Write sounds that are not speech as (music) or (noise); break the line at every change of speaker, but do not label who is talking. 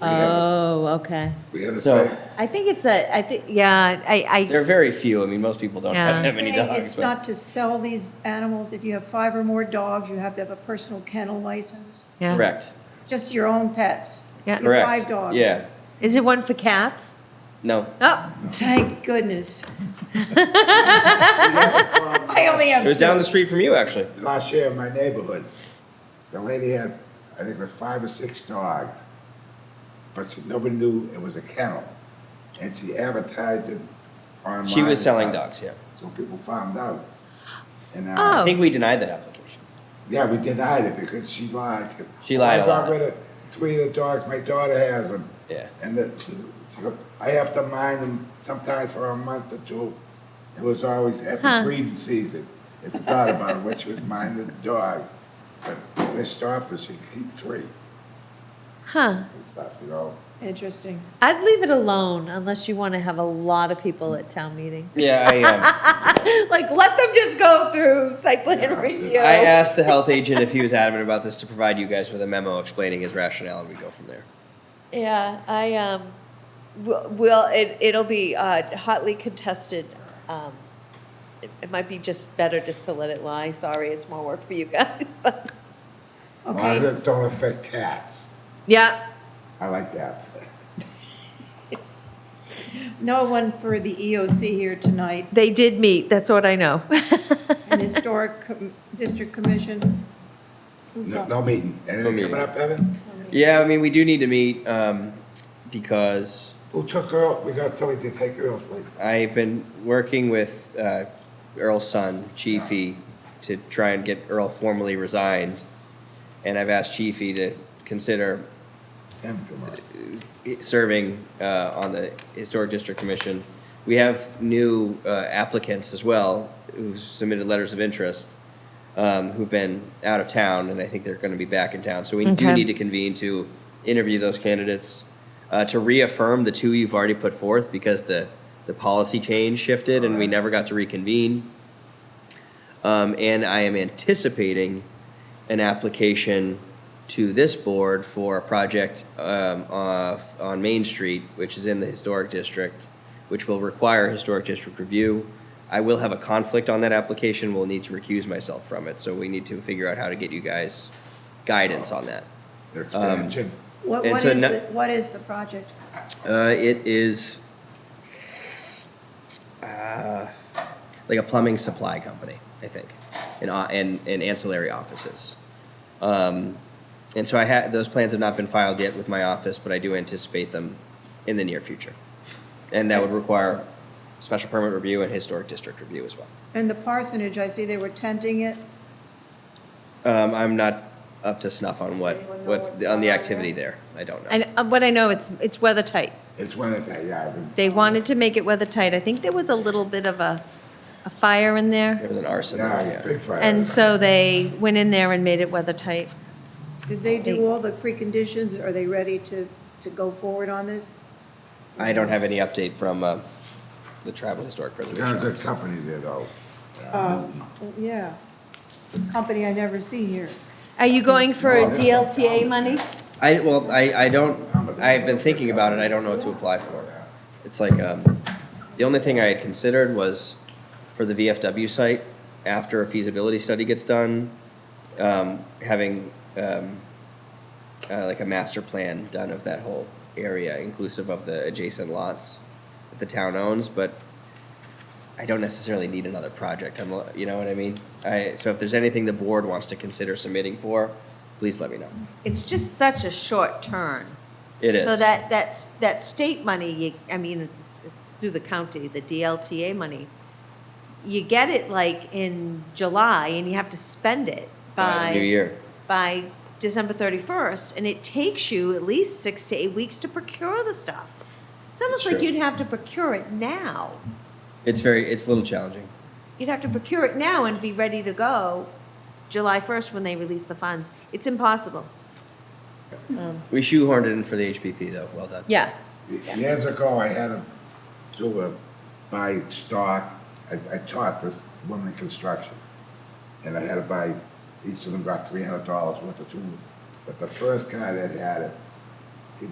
Oh, okay.
We have a
So
fact,
I think it's a, I think, yeah, I,
there are very few. I mean, most people don't
Yeah.
have that many
saying
dogs.
it's
but-
not to sell these animals. If you have five or more dogs, you have to have a personal kennel license.
I, yeah.
Correct,
Just your own pets.
Yeah.
Your
correct.
five dogs.
Yeah,
Is it one for cats?
no.
Oh,
Thank goodness. (laughs) I only have
It was down the
two.
street from you, actually.
last year in my neighborhood, the lady had, I think it was five or six dogs, but she, nobody knew it was a kennel. And she advertised it online.
She was selling dogs, yeah.
So people found out. And,
Oh.
uh,
I think we denied that application.
yeah, we denied it because she lied.
She lied
I
a
got
lot.
rid of three of the dogs, my daughter has them.
Yeah.
And the, she go- I have to mind them sometimes for a month or two. It was always at the
Huh.
breeding season, if you thought about it, which was minding the dog. But if they stopped us, you could keep three
huh.
and stuff, you know?
Interesting.
I'd leave it alone unless you want to have a lot of people at town meeting. (laughs)
Yeah, I, um,
Like, let them just go through site plan
Yeah.
review. (laughs)
I uh, asked the health agent if he was adamant about this to provide you guys with a memo explaining his rationale, and we go from there.
Yeah, I, um, will- will, it, it'll be uh, hotly contested. Um, It it might be just better just to let it lie. Sorry, it's more work for you guys, (laughs) but.
As long as
Okay,
it don't affect cats.
Yeah.
I like cats.
no one for the EOC here tonight.
They did meet, that's what I (laughs) know.
And Historic Com- District Commission. Who's
No,
on?
no meeting. Anything
meeting.
coming up, Evan?
Yeah, I mean, we do need to meet, um, because
Who took her out? We got somebody to take her out, please.
I've been working with, uh, Earl's son, Chiefy, to try and get Earl formally resigned. And I've asked Chiefy to consider
Him tomorrow.
serving uh, on the Historic District Commission. We have new uh, applicants as well who've submitted letters of interest, um, who've been out of town, and I think they're going to be back in town. So we do
Okay.
need to convene to interview those candidates, uh, to reaffirm the two you've already put forth because the, the policy change shifted and we never got to reconvene. Um, and I am anticipating an application to this board for a project um, off, on Main Street, which is in the historic district, which will require historic district review. I will have a conflict on that application, will need to recuse myself from it, so we need to figure out how to get you guys guidance on that.
The Expansion.
What,
And
what
so
is,
no-
the- what is the project?
Uh, it is uh, like a plumbing supply company, I think, and uh, and, and ancillary offices. Um, and so I had those plans have not been filed yet with my office, but I do anticipate them in the near future, and that would require special permit review and historic district review as well.
And the parsonage, I see they were tenting it.
Um, I'm not up to snuff on what
Anyone know
what
what's
on the
going on
activity there. I don't know.
And uh, what I know, it's, it's weather tight.
It's one of the, yeah. the-
They wanted to make it weather tight. I think there was a little bit of a, a fire in
There
there.
was an arson. there,
Yeah, big fire.
And so they went in there and made it weather tight.
Did they do all the preconditions? Are they ready to, to go forward on this?
I don't have any update from uh, the Tribal Historic Preservation
Got a good
Office.
company there, though.
Yeah. Company I never see here.
Are you going for
Oh, this one's
DLTA
down.
money?
I, well, I, I don't, I've been thinking about it, I don't know what to apply for. It's like, um, the only thing I had considered was for the VFW site, after a feasibility study gets done, um, having, um, uh, like a master plan done of that whole area, inclusive of the adjacent lots that the town owns, but I don't necessarily need another project, I'm, you know what I mean? I, so if there's anything the board wants to consider submitting for, please let me know.
It's just such a short turn.
It is.
So that, that's, that state money, you, I mean, it's, it's through the county, the DLTA money. You get it like in July and you have to spend it by.
New Year.
By December thirty-first, and it takes you at least six to eight weeks to procure the stuff. It's almost
It's
like
true.
you'd have to procure it now.
It's very, it's a little challenging.
You'd have to procure it now and be ready to go July first when they release the funds. It's impossible.
We shoehorned it in for the HPP though. Well done.
Yeah.
Years ago, I had to do a, buy stock, I, I taught this woman in construction. And I had to buy, each of them got three hundred dollars worth of tools. But the first guy that had it,